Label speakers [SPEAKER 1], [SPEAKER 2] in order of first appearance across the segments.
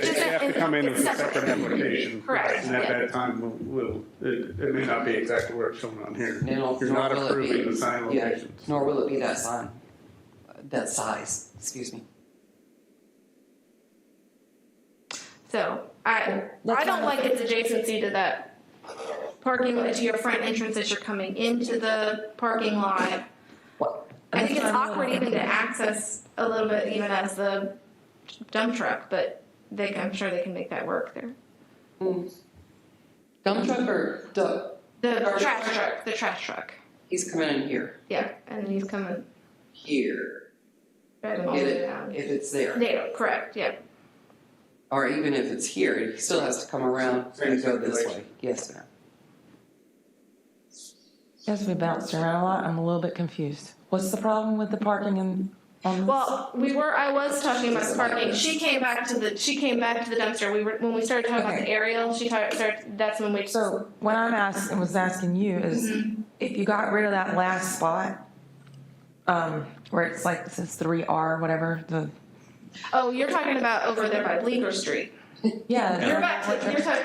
[SPEAKER 1] have to come in with a separate application.
[SPEAKER 2] Correct,
[SPEAKER 1] And at
[SPEAKER 2] yeah.
[SPEAKER 1] that time, we'll, we'll- it, it may not be exactly where it's shown on here.
[SPEAKER 3] Nor-
[SPEAKER 1] You're
[SPEAKER 3] nor
[SPEAKER 1] not
[SPEAKER 3] will it be-
[SPEAKER 1] approving the sign
[SPEAKER 3] yeah,
[SPEAKER 1] locations.
[SPEAKER 3] Nor will it be that sign, that size, excuse me.
[SPEAKER 2] So I, I don't like its adjacency to that parking, to your front entrance as you're coming into the parking lot.
[SPEAKER 3] What?
[SPEAKER 2] I think it's awkward even to access a little bit even as the dump truck, but they, I'm sure they can make that work there.
[SPEAKER 3] Dump truck or dump,
[SPEAKER 2] The
[SPEAKER 3] Or the
[SPEAKER 2] trash
[SPEAKER 3] trash
[SPEAKER 2] truck, the trash truck,
[SPEAKER 3] he's coming in here,
[SPEAKER 2] yeah, and he's coming
[SPEAKER 3] here,
[SPEAKER 2] right
[SPEAKER 3] and
[SPEAKER 2] along
[SPEAKER 3] get it,
[SPEAKER 2] down.
[SPEAKER 3] if it's there.
[SPEAKER 2] There, correct, yeah.
[SPEAKER 3] Or even if it's here, he still has to come around and go this way. Yes, ma'am.
[SPEAKER 4] As we bounced around a lot, I'm a little bit confused. What's the problem with the parking and on this?
[SPEAKER 2] Well, we were. I was talking about the parking. She came back to the. She came back to the dumpster. We were when we started talking about the
[SPEAKER 4] Okay.
[SPEAKER 2] aerial. She talked. Started, that's when we.
[SPEAKER 4] So what I'm asking, was asking you is, if you got rid of that last spot, um, where it's like, it says three R, whatever, the,
[SPEAKER 2] oh, you're talking about over there by Bleecker Street.
[SPEAKER 4] yeah.
[SPEAKER 2] You're back. To, you're talking.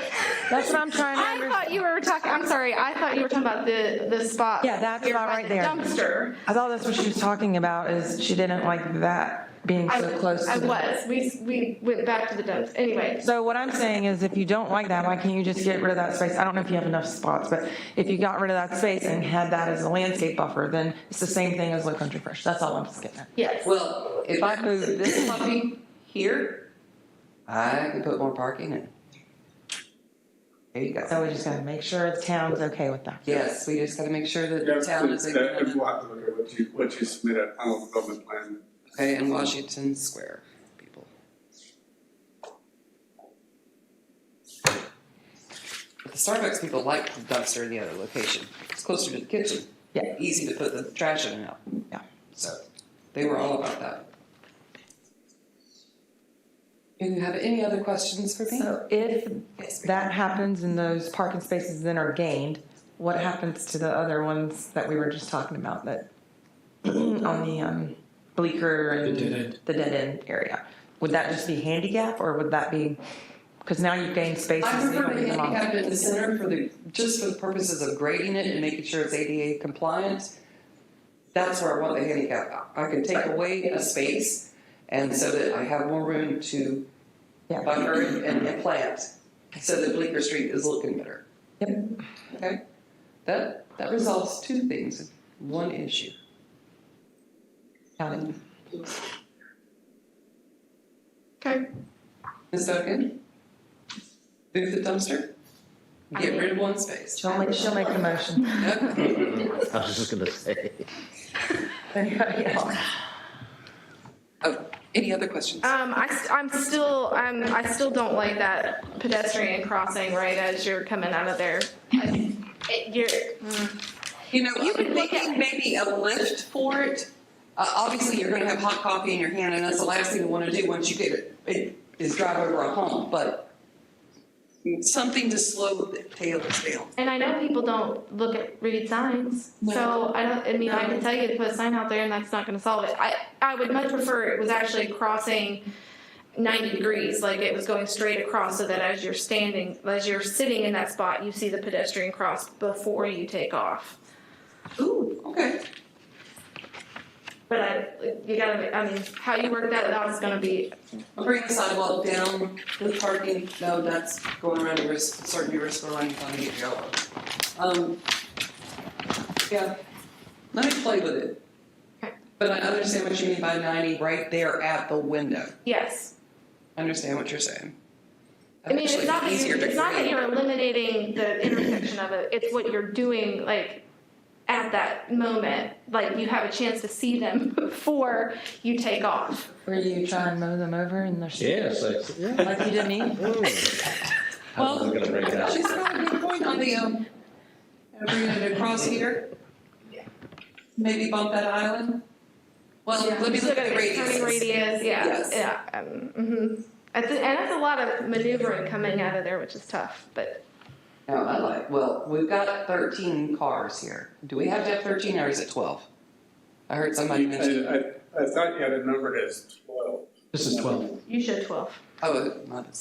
[SPEAKER 4] That's what I'm trying to
[SPEAKER 2] I
[SPEAKER 4] understand.
[SPEAKER 2] thought you were talking. I'm sorry. I thought you were talking about the the spot.
[SPEAKER 4] Yeah, that's
[SPEAKER 2] here
[SPEAKER 4] not
[SPEAKER 2] by
[SPEAKER 4] right
[SPEAKER 2] the
[SPEAKER 4] there.
[SPEAKER 2] Dumpster.
[SPEAKER 4] I thought that's what she was talking about, is she didn't like that being
[SPEAKER 2] I,
[SPEAKER 4] so close
[SPEAKER 2] I
[SPEAKER 4] to the.
[SPEAKER 2] was. We we went back to the dumpster. Anyway.
[SPEAKER 4] So what I'm saying is, if you don't like that, why can't you just get rid of that space? I don't know if you have enough spots, but if you got rid of that space and had that as a landscape buffer, then it's the same thing as Low Country Fresh. That's all I'm just getting at.
[SPEAKER 2] Yes.
[SPEAKER 3] Well, if I move this puppy here, I can put more parking in. There you go.
[SPEAKER 4] So we just gotta make sure the town's okay with that.
[SPEAKER 3] Yes, we just gotta make sure that
[SPEAKER 1] Yeah,
[SPEAKER 3] the town is in
[SPEAKER 1] that-
[SPEAKER 3] agreement.
[SPEAKER 1] We'll have to look at what you, what you submit at final development plan.
[SPEAKER 3] Okay, in Washington Square, people. But the Starbucks people like the dumpster in the other location. It's closer to the kitchen.
[SPEAKER 4] Yeah.
[SPEAKER 3] Easy to put the trash in and out.
[SPEAKER 4] Yeah.
[SPEAKER 3] So they were all about that. Do you have any other questions for me?
[SPEAKER 4] So if
[SPEAKER 3] Yes, ma'am.
[SPEAKER 4] that happens and those parking spaces then are gained, what happens to the other ones that we were just talking about that on the, um, bleaker and
[SPEAKER 5] The dead end.
[SPEAKER 4] the dead end area? Would that just be handicap or would that be, cause now you've gained spaces.
[SPEAKER 3] I
[SPEAKER 4] you don't
[SPEAKER 3] prefer to
[SPEAKER 4] need them all.
[SPEAKER 3] handicap it in the center for the, just for the purposes of grading it and making sure it's ADA compliant. That's where I want the handicap. I can take away a space and so that I have more room to
[SPEAKER 4] Yeah.
[SPEAKER 3] buffer it and and plant. So that Bleecker Street is looking better,
[SPEAKER 4] Yep.
[SPEAKER 3] okay? That, that resolves two things, in one issue. Um,
[SPEAKER 4] Got it.
[SPEAKER 2] Okay.
[SPEAKER 3] Ms. Duncan? Move the dumpster? Get rid of one space.
[SPEAKER 4] She'll make, she'll make the motion.
[SPEAKER 3] Okay.
[SPEAKER 6] I was just gonna say.
[SPEAKER 4] Anybody else?
[SPEAKER 3] Oh, any other questions?
[SPEAKER 2] Um, I, st- I'm still, I'm, I still don't like that pedestrian crossing right as you're coming out of there. I- It, you're,
[SPEAKER 3] You know,
[SPEAKER 2] You
[SPEAKER 3] you
[SPEAKER 2] could
[SPEAKER 3] could
[SPEAKER 2] look
[SPEAKER 3] thinking maybe a lift for it. Uh, obviously, you're going to have hot coffee in your hand, and that's the last thing you want to do once you get it, it is drive over a home. But something to slow the tails down.
[SPEAKER 2] and I know people don't look at read signs, so I don't. I mean, I can tell you to put a sign out there, and that's not going to solve it. I, I would much prefer it was actually crossing ninety degrees, like it was going straight across, so that as you're standing, as you're sitting in that spot, you see the pedestrian cross before you take off.
[SPEAKER 3] Ooh, okay.
[SPEAKER 2] But I, you gotta. I mean, how you work that out is going to be
[SPEAKER 3] I'll bring the sidewalk down to the parking. No, that's going around a risk, certainly risk for running on the yellow. Um, yeah, let me play with it.
[SPEAKER 2] Okay.
[SPEAKER 3] But I understand what you mean by 90 right there at the window.
[SPEAKER 2] yes.
[SPEAKER 3] Understand what you're saying.
[SPEAKER 2] I mean, it's
[SPEAKER 3] Actually,
[SPEAKER 2] not that
[SPEAKER 3] easier
[SPEAKER 2] you,
[SPEAKER 3] to
[SPEAKER 2] it's not that
[SPEAKER 3] create.
[SPEAKER 2] you're eliminating the intersection of it. It's what you're doing, like at that moment, like you have a chance to see them before you take off.
[SPEAKER 4] Were you trying to mow them over in the?
[SPEAKER 6] Yes, I, yeah.
[SPEAKER 4] Like you did me?
[SPEAKER 6] I was gonna bring it up.
[SPEAKER 3] She's got a good point on the, um, bringing it across here. Maybe bump that island. Well, let me
[SPEAKER 2] So
[SPEAKER 3] look at the
[SPEAKER 2] it's Turning
[SPEAKER 3] radius.
[SPEAKER 2] radius, yeah,
[SPEAKER 3] Yes.
[SPEAKER 2] yeah. um, mhm. I thi- And that's a lot of maneuvering coming out of there, which is tough, but
[SPEAKER 3] No, I like, well, we've got thirteen cars here. Do we have to have thirteen or is it twelve? I heard somebody
[SPEAKER 1] I,
[SPEAKER 3] mention,
[SPEAKER 1] I- I thought you had it numbered as twelve.
[SPEAKER 5] This is twelve.
[SPEAKER 2] you should twelve.
[SPEAKER 3] oh, not